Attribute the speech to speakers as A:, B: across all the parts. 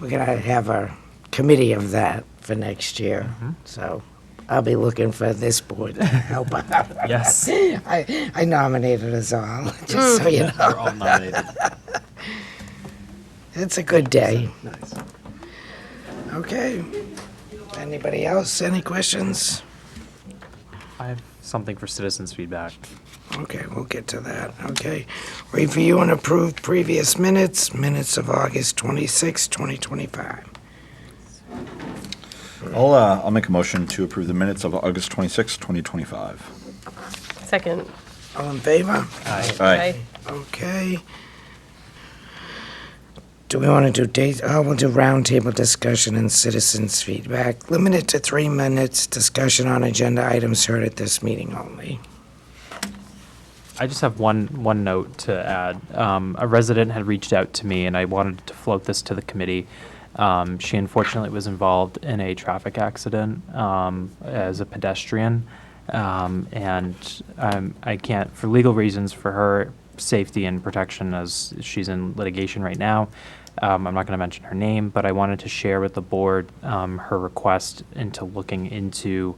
A: we're going to have a committee of that for next year. So I'll be looking for this board to help out.
B: Yes.
A: I, I nominated us all, just so you know.
C: We're all nominated.
A: It's a good day.
C: Nice.
A: Okay. Anybody else? Any questions?
B: I have something for citizens feedback.
A: Okay, we'll get to that. Okay. Review and approve previous minutes, minutes of August 26, 2025.
D: I'll, uh, I'll make a motion to approve the minutes of August 26, 2025.
E: Second.
A: All in favor?
D: Aye.
A: Okay. Do we want to do dates? Oh, we'll do roundtable discussion and citizens' feedback. Limited to three minutes. Discussion on agenda items heard at this meeting only.
B: I just have one one note to add. Um, a resident had reached out to me, and I wanted to float this to the committee. Um, she unfortunately was involved in a traffic accident um, as a pedestrian, um, and um, I can't, for legal reasons, for her safety and protection, as she's in litigation right now. Um, I'm not going to mention her name, but I wanted to share with the board um, her request into looking into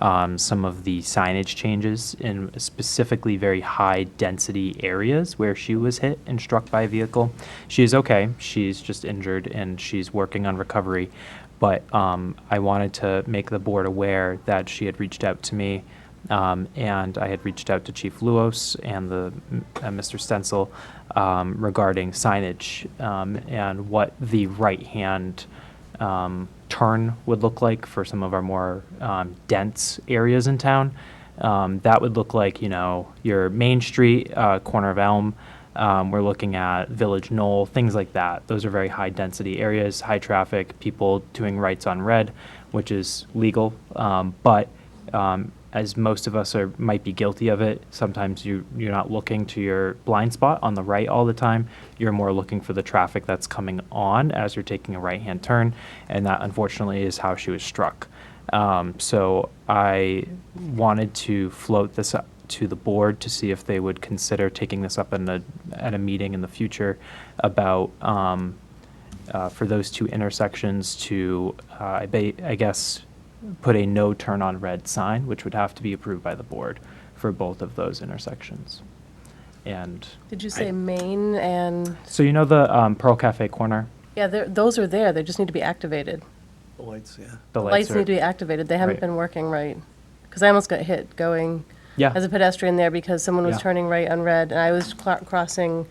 B: um, some of the signage changes in specifically very high density areas where she was hit and struck by a vehicle. She is okay. She's just injured and she's working on recovery. But um, I wanted to make the board aware that she had reached out to me um, and I had reached out to Chief Luos and the uh, Mr. Stencil um, regarding signage um, and what the right-hand um, turn would look like for some of our more um, dense areas in town. Um, that would look like you know your Main Street uh, corner of Elm. Um, we're looking at Village Knoll, things like that. Those are very high density areas, high traffic, people doing rights on red, which is legal, um, but um, as most of us are might be guilty of it. Sometimes you you're not looking to your blind spot on the right all the time. You're more looking for the traffic that's coming on as you're taking a right-hand turn, and that unfortunately is how she was struck. Um, so I wanted to float this up to the board to see if they would consider taking this up in a, at a meeting in the future about um, uh, for those two intersections to, uh, I ba- I guess, put a no turn on red sign, which would have to be approved by the board for both of those intersections. And,
E: Did you say Maine and,
B: so you know the um, Pearl Cafe corner?
E: yeah, they're- those are there, they just need to be activated.
C: The lights, yeah.
B: The
E: Lights
B: are-
E: need to be activated, they haven't
B: Right.
E: been working right. Because I almost got hit going
B: Yeah.
E: as a pedestrian there because someone was
B: Yeah.
E: turning right on red, and I was cl- crossing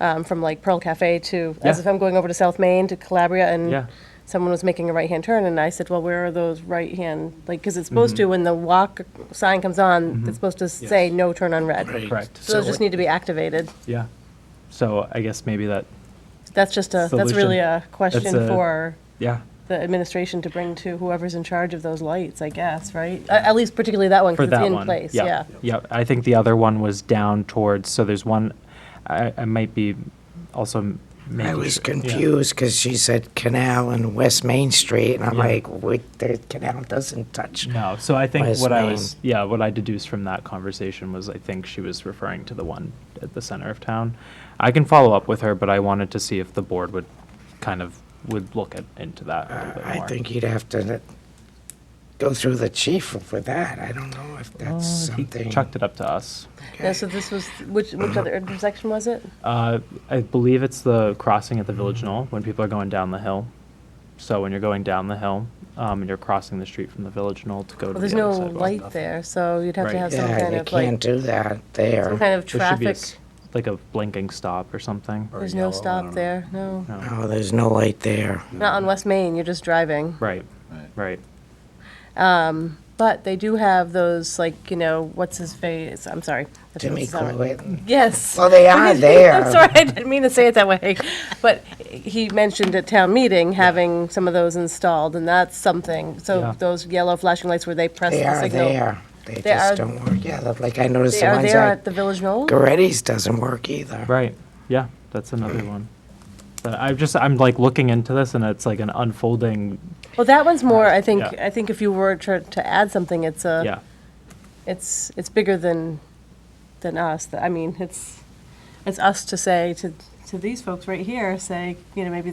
E: um, from like Pearl Cafe to, as
B: Yeah.
E: if I'm going over to South Main to Calabria,
B: Yeah.
E: and someone was making a right-hand turn, and I said, well, where are those right-hand, like, because it's supposed
B: Mm-hmm.
E: to, when the walk sign comes on, it's supposed to say no turn on red.
B: Correct.
E: So those just need to be activated.
B: Yeah. So I guess maybe that,
E: That's just a, that's
B: Solution.
E: really a question
B: a-
E: for
B: yeah,
E: the administration to bring to whoever's in charge of those lights, I guess, right? A- At least particularly that one,
B: for
E: because
B: that
E: it's in
B: one.
E: place, yeah.
B: Yeah, I think the other one was down towards, so there's one, I, I might be also making.
A: I was
B: sure-
A: confused because she said Canal and West Main Street, and I'm
B: Yeah.
A: like, wait, the canal doesn't touch.
B: No, so I think
A: West
B: what I
A: Main.
B: was, yeah, what I deduced from that conversation was I think she was referring to the one at the center of town. I can follow up with her, but I wanted to see if the board would kind of, would look at, into that a little bit
A: Uh, I
B: more.
A: think you'd have to go through the chief for that. I don't know if that's
B: Uh, he
A: something.
B: Chucked it up to us.
E: Yeah, so this was, which, which other intersection was it?
B: Uh, I believe it's the crossing
A: Mm-hmm.
B: at the Village Knoll when people are going down the hill. So when you're going down the hill, um, and you're crossing the street from the Village Knoll to go to
E: Well,
B: the other
E: there's no
B: sidewalk.
E: light there, so you'd have to
B: Right.
E: have some
A: Yeah,
E: kind
A: you
E: of like,
A: can't do that
E: some kind
A: there.
E: of
B: There should be a
E: traffic.
B: s- Like a blinking stop or something.
C: Or
E: There's
C: yellow,
E: no
C: I
E: stop
C: don't
E: there, no.
B: No.
A: Oh, there's no light there.
E: Not on West Main, you're just driving.
B: Right, right.
E: But they do have those, like, you know, what's his face, I'm sorry. I think
A: Timmy
E: it's not right.
A: Corbett.
E: Yes.
A: Well, Oh, they are there.
E: I'm sorry, I didn't mean to say it that way. But he mentioned at town meeting having some of those installed, and that's something.
B: Yeah.
E: So those yellow flashing lights where they press
A: They
E: the
A: are
E: signal.
A: there. They
E: They
A: just
E: are-
A: don't work. Yeah, that- like I noticed
E: They
A: the
E: are
A: ones
E: there at
A: at
E: the Village Knoll?
A: Goretti's doesn't work either.
B: Right. Yeah, that's another one. But I'm just I'm like looking into this and it's like an unfolding.
E: Well, that one's more, I think,
B: Yeah.
E: I think if you were to, to add something, it's
B: yeah.
E: a, it's, it's bigger than, than us. I mean, it's, it's us to say to, to these folks right here, say, you know, maybe